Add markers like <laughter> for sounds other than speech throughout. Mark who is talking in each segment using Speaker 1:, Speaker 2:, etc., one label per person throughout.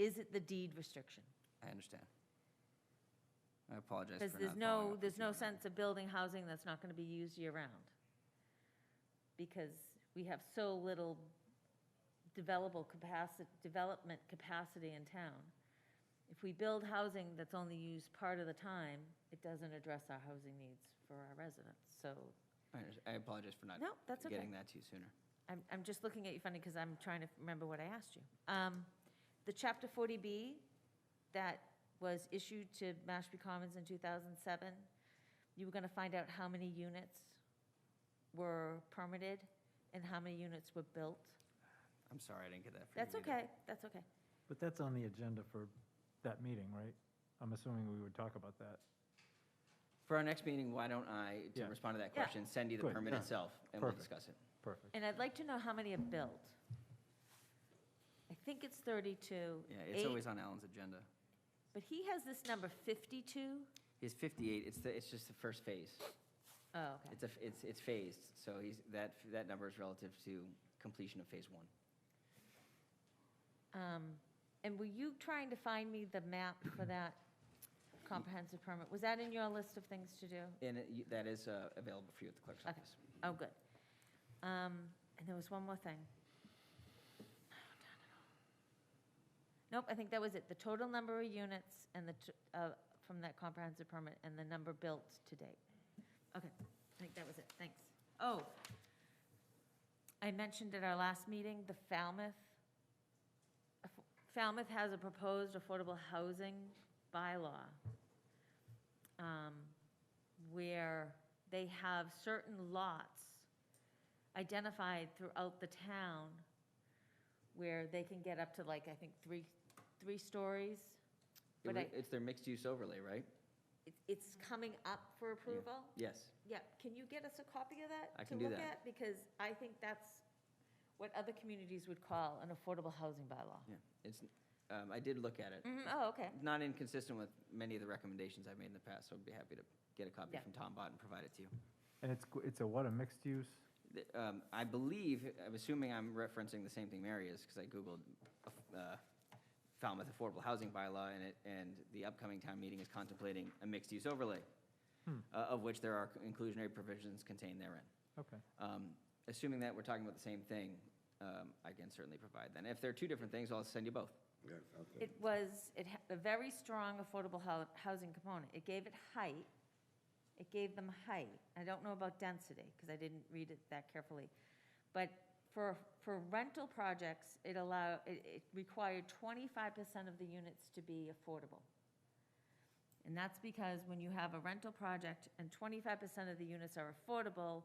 Speaker 1: Is it the deed restriction?
Speaker 2: I understand. I apologize for not
Speaker 1: Because there's
Speaker 2: following
Speaker 1: no,
Speaker 2: up
Speaker 1: there's
Speaker 2: with you
Speaker 1: no
Speaker 2: on that.
Speaker 1: sense of building housing that's not going to be used year-round. Because we have so little developable capacity, development capacity in town. If we build housing that's only used part of the time, it doesn't address our housing needs for our residents. So
Speaker 2: I under- I apologize for not
Speaker 1: No, that's okay.
Speaker 2: getting that to you sooner.
Speaker 1: I'm, I'm just looking at you funny because I'm trying to remember what I asked you. Um, The Chapter 40B that was issued to Mashpee Commons in 2007, you were going to find out how many units were permitted and how many units were built?
Speaker 2: I'm sorry, I didn't get that for you.
Speaker 1: That's
Speaker 2: either.
Speaker 1: okay, that's okay.
Speaker 3: But that's on the agenda for that meeting, right? I'm assuming we would talk about that.
Speaker 2: For our next meeting, why don't I, to
Speaker 3: Yeah.
Speaker 2: respond to that
Speaker 1: Yeah.
Speaker 2: question, send you the
Speaker 3: Good,
Speaker 2: permit
Speaker 3: yeah.
Speaker 2: itself, and we'll
Speaker 3: Perfect.
Speaker 2: discuss it.
Speaker 3: Perfect.
Speaker 1: And I'd like to know how many are built. I think it's 32.
Speaker 2: Yeah, it's
Speaker 1: eight-
Speaker 2: always on Alan's agenda.
Speaker 1: But he has this number 52?
Speaker 2: He's 58, it's, the. it's just the first phase.
Speaker 1: Oh, okay.
Speaker 2: It's, a f- it's, it's phased, so he's, that, that number is relative to completion of phase one.
Speaker 1: Um, And were you trying to find me the map for that comprehensive permit? Was that in your list of things to do?
Speaker 2: And it- you- that is uh, available for you at the clerk's
Speaker 1: Okay.
Speaker 2: office.
Speaker 1: Oh, good. Um, And there was one more thing. Nope, I think that was it. The total number of units and the, t- uh, from that comprehensive permit and the number built to date. Okay, I think that was it. Thanks. Oh, I mentioned at our last meeting, the Falmouth, aff- Falmouth has a proposed affordable housing bylaw um, where they have certain lots identified throughout the town where they can get up to like, I think, three, three stories.
Speaker 2: It
Speaker 1: But
Speaker 2: wa-
Speaker 1: I-
Speaker 2: It's their mixed-use overlay, right?
Speaker 1: It's, it's coming up for approval.
Speaker 2: Yes.
Speaker 1: Yeah, can you get us a copy of that?
Speaker 2: I can do
Speaker 1: To look
Speaker 2: that.
Speaker 1: at, because I think that's what other communities would call an affordable housing bylaw.
Speaker 2: Yeah, it's, um, I did look at it.
Speaker 1: Mhm, Oh, okay,
Speaker 2: Not inconsistent with many of the recommendations I've made in the past, so I'd be happy to get a copy
Speaker 1: Yeah.
Speaker 2: from Tom Bott and provide it to you.
Speaker 3: And it's, qu- it's a what, a mixed use?
Speaker 2: Th- um, I believe, I'm assuming I'm referencing the same thing Mary is, because I Googled uh, Falmouth Affordable Housing Bylaw, and it, and the upcoming town meeting is contemplating a mixed-use overlay,
Speaker 3: Hmm.
Speaker 2: uh, of which there are inclusionary provisions contained therein.
Speaker 3: Okay.
Speaker 2: Um, Assuming that we're talking about the same thing, um, I can certainly provide that. If they're two different things, I'll send you both.
Speaker 4: Yeah, okay.
Speaker 1: it was, it had a very strong affordable hou- housing component. It gave it height, it gave them height. I don't know about density, because I didn't read it that carefully. But for, for rental projects, it allow, it, it required twenty-five percent of the units to be affordable. And that's because when you have a rental project and twenty-five percent of the units are affordable,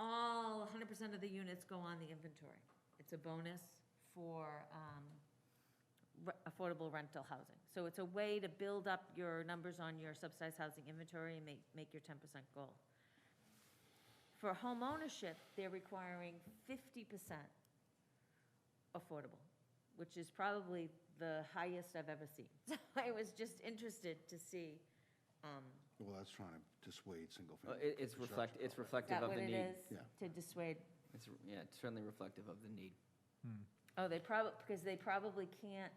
Speaker 1: all hundred percent of the units go on the inventory. It's a bonus for, um, re- affordable rental housing. So it's a way to build up your numbers on your subsidized housing inventory and make, make your ten percent goal. For home ownership, they're requiring fifty percent affordable, which is probably the highest I've ever seen. <laughs> So I was just interested to see, um,
Speaker 4: Well, that's trying to dissuade single
Speaker 2: Uh,
Speaker 4: family.
Speaker 2: it- It's reflect,
Speaker 4: construction.
Speaker 2: it's
Speaker 1: is
Speaker 2: reflective
Speaker 1: that
Speaker 2: of
Speaker 1: what
Speaker 2: the
Speaker 1: it
Speaker 2: need.
Speaker 1: is?
Speaker 4: Yeah.
Speaker 1: To dissuade
Speaker 2: It's, r- yeah, it's certainly reflective of the need.
Speaker 3: Hmm.
Speaker 1: Oh, they probably, because they probably can't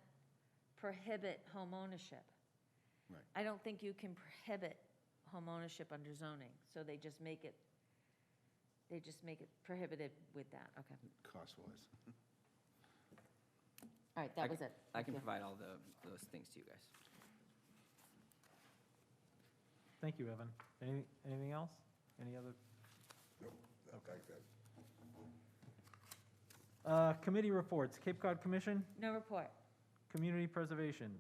Speaker 1: prohibit homeownership.
Speaker 4: Right.
Speaker 1: I don't think you can prohibit homeownership under zoning, so they just make it, they just make it prohibited with that, okay.
Speaker 4: Cost-wise.
Speaker 1: All right,
Speaker 2: I
Speaker 1: that
Speaker 2: c-
Speaker 1: was it.
Speaker 2: I can
Speaker 1: Thank you.
Speaker 2: provide all the, those things to you guys.
Speaker 3: Thank you, Evan. Any, anything else? Any other?
Speaker 4: Okay, good.
Speaker 3: Uh, committee reports, Cape Cod Commission,
Speaker 1: No report.
Speaker 3: Community Preservation.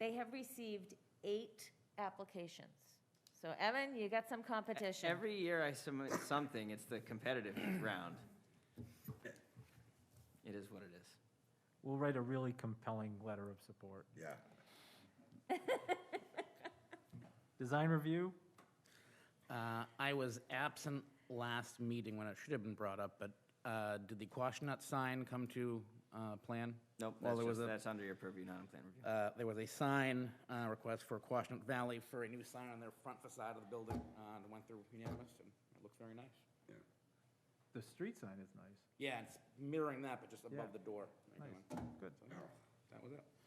Speaker 1: They have received eight applications. So Evan, you got some competition.
Speaker 2: Every year I submit something, it's the <coughs> competitive round. It is what it is.
Speaker 3: We'll write a really compelling letter of support.
Speaker 4: Yeah.
Speaker 3: Design Review,
Speaker 5: Uh, I was absent last meeting when it should have been brought up, but uh, did the Quashnut sign come to uh, plan?
Speaker 2: Nope,
Speaker 5: Well,
Speaker 2: that's
Speaker 5: there was
Speaker 2: just,
Speaker 5: a-
Speaker 2: that's under your purview, not on plan review.
Speaker 5: uh, There was a sign uh, request for Quashnut Valley for a new sign on their front facade of the building, uh, and it went through unanimous, and it looks very nice.
Speaker 3: the street sign is nice.
Speaker 5: Yeah, it's mirroring that, but just
Speaker 3: Yeah.
Speaker 5: above the door.
Speaker 3: Nice, good.
Speaker 5: That was it.